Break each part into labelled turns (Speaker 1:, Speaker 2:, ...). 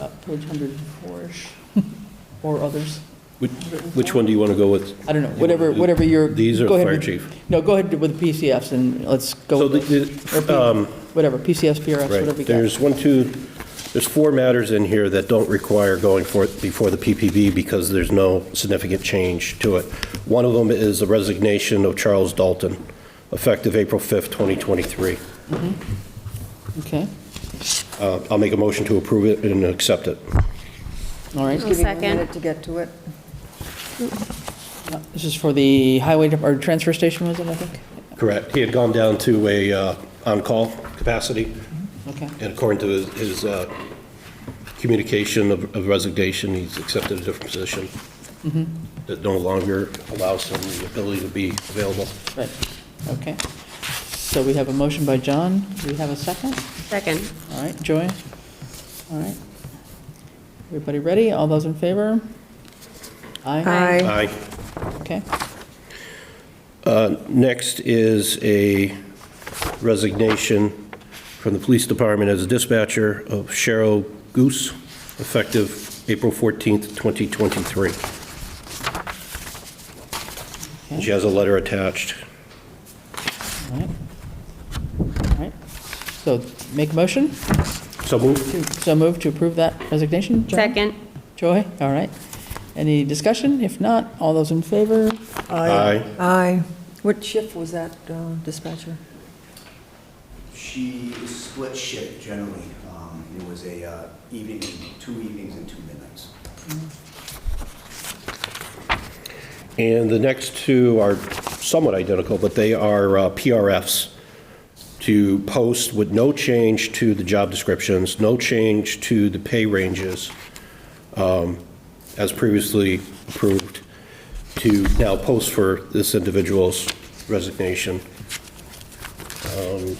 Speaker 1: Uh, page 104-ish, or others.
Speaker 2: Which, which one do you want to go with?
Speaker 1: I don't know, whatever, whatever your.
Speaker 2: These are
Speaker 1: go ahead
Speaker 2: fire
Speaker 1: with-
Speaker 2: chief.
Speaker 1: No, go ahead with PCFs and let's go
Speaker 2: So the-
Speaker 1: with those. Or P-
Speaker 2: the, um,
Speaker 1: whatever, PCFs, PRFs,
Speaker 2: right,
Speaker 1: whatever you got.
Speaker 2: there's one, two, there's four matters in here that don't require going for, before the PPB because there's no significant change to it. One of them is the resignation of Charles Dalton, effective April 5th, 2023.
Speaker 1: Okay,
Speaker 2: Uh, I'll make a motion to approve it and accept it.
Speaker 1: all right.
Speaker 3: I'll
Speaker 4: Giving you a
Speaker 3: second.
Speaker 4: minute to get to it.
Speaker 1: This is for the highway, dep- or transfer station, was it, I think?
Speaker 2: Correct. He had gone down to a uh, on-call capacity,
Speaker 1: Okay,
Speaker 2: and according to his- his uh, communication of of resignation, he's accepted a different position that no longer allows him the ability to be available.
Speaker 1: right, okay. So we have a motion by John. Do we have a second?
Speaker 3: Second.
Speaker 1: All right, Joy? All right. Everybody ready? All those in favor? Aye?
Speaker 4: Aye.
Speaker 2: Aye.
Speaker 1: Okay,
Speaker 2: Next is a resignation from the police department as a dispatcher of Cheryl Goose, effective April 14th, 2023. She has a letter attached.
Speaker 1: all right. All right. So make a motion?
Speaker 2: So moved.
Speaker 1: to- So move to approve that resignation? John?
Speaker 3: Second.
Speaker 1: Joy, all right. Any discussion? If not, all those in favor?
Speaker 2: Aye.
Speaker 4: Aye. What shift was that uh, dispatcher?
Speaker 5: She is split shift generally. Um, It was a uh, evening, two evenings and two midnights.
Speaker 2: And the next two are somewhat identical, but they are uh, PRFs to post with no change to the job descriptions, no change to the pay ranges, um, as previously approved, to now post for this individual's resignation. Um,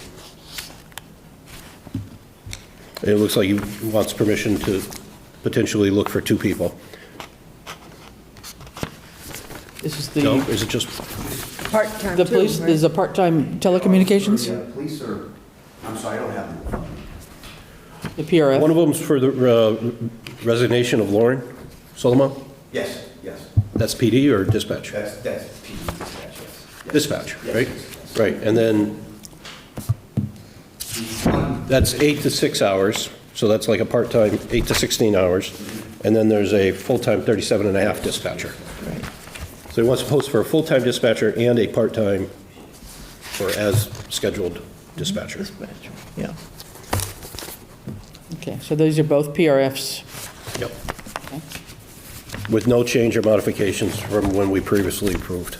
Speaker 2: It looks like he wants permission to potentially look for two people.
Speaker 1: This is
Speaker 2: No,
Speaker 1: the,
Speaker 2: is it just
Speaker 4: Part-time too,
Speaker 1: the police,
Speaker 4: right?
Speaker 1: there's a part-time telecommunications,
Speaker 5: Yeah, Police are, I'm sorry, I don't have them. in front of me.
Speaker 1: the PRF.
Speaker 2: One of them's for the uh, resignation of Lauren Solomon.
Speaker 5: Yes, yes,
Speaker 2: That's PD or dispatch?
Speaker 5: that's, that's PD dispatch, yes. yes.
Speaker 2: Dispatch,
Speaker 5: Yes,
Speaker 2: right?
Speaker 5: yes, yes.
Speaker 2: Right, and then
Speaker 5: The one-
Speaker 2: that's eight to six hours, so that's like a part-time, eight to 16 hours. And then there's a full-time 37 and a half dispatcher. So he wants to post for a full-time dispatcher and a part-time or as scheduled dispatcher.
Speaker 1: Yeah. Okay, so those are both PRFs.
Speaker 2: Yep. With no change or modifications from when we previously approved.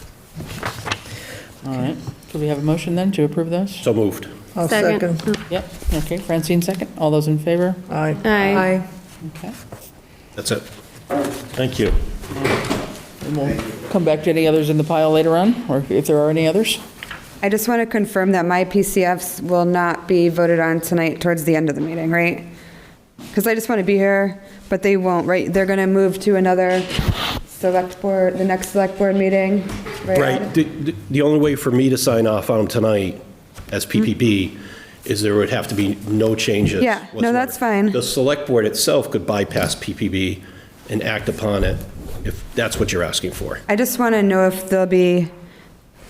Speaker 1: All right. Do we have a motion then to approve those?
Speaker 2: So moved.
Speaker 6: I'll
Speaker 3: Second.
Speaker 6: Oh, second.
Speaker 1: Yep, okay, Francine second. All those in favor?
Speaker 6: Aye.
Speaker 3: Aye.
Speaker 4: Aye.
Speaker 1: Okay.
Speaker 2: That's it. Thank you.
Speaker 1: And we'll come back to any others in the pile later on, or if there are any others.
Speaker 7: I just want to confirm that my PCFs will not be voted on tonight towards the end of the meeting, right? Because I just want to be here, but they won't, right? They're going to move to another select board, the next select board meeting, right?
Speaker 2: Right. The- The the only way for me to sign off on tonight
Speaker 7: Hmm.
Speaker 2: as PPP is there would have to be no changes.
Speaker 7: Yeah, no,
Speaker 2: whatsoever.
Speaker 7: that's fine.
Speaker 2: The Select Board itself could bypass PPP and act upon it if that's what you're asking for.
Speaker 7: I just want to know if they'll be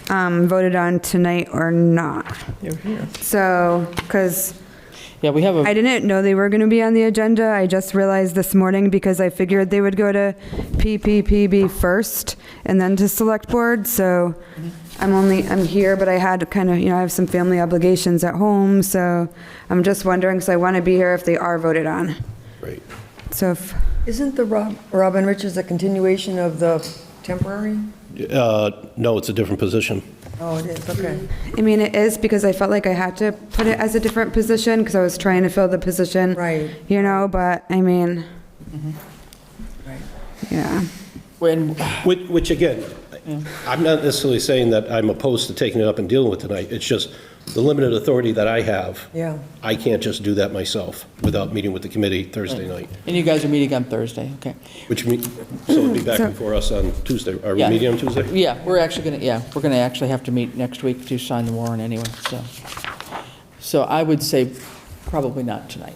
Speaker 7: um, voted on tonight or not.
Speaker 6: You're here.
Speaker 7: So, because
Speaker 1: Yeah, we have
Speaker 7: I
Speaker 1: a,
Speaker 7: didn't know they were going to be on the agenda. I just realized this morning because I figured they would go to PPPB first and then to Select Board, so I'm only, I'm here, but I had kind of, you know, I have some family obligations at home, so I'm just wondering, so I want to be here if they are voted on.
Speaker 2: Right.
Speaker 7: So if,
Speaker 6: Isn't the Rob- Robin Richards a continuation of the temporary?
Speaker 2: Uh, No, it's a different position.
Speaker 6: Oh, it is, okay.
Speaker 7: I mean, it is because I felt like I had to put it as a different position because I was trying to fill the position.
Speaker 6: Right. Mm-hmm.
Speaker 7: You know, but I mean,
Speaker 6: Right.
Speaker 7: yeah.
Speaker 1: when,
Speaker 2: Which, which again, I'm not necessarily saying that I'm opposed to taking it up and dealing with tonight. It's just the limited authority that I have.
Speaker 6: Yeah.
Speaker 2: I can't just do that myself without meeting with the committee Thursday night.
Speaker 1: and you guys are meeting on Thursday, okay.
Speaker 2: Which means, so it'll be back before us on Tuesday. Are we
Speaker 1: Yeah.
Speaker 2: meeting on Tuesday?
Speaker 1: Yeah, we're actually going to, yeah, we're going to actually have to meet next week to sign the warrant anyway, so. So I would say probably not tonight.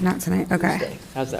Speaker 7: Not tonight, okay.
Speaker 1: How's that?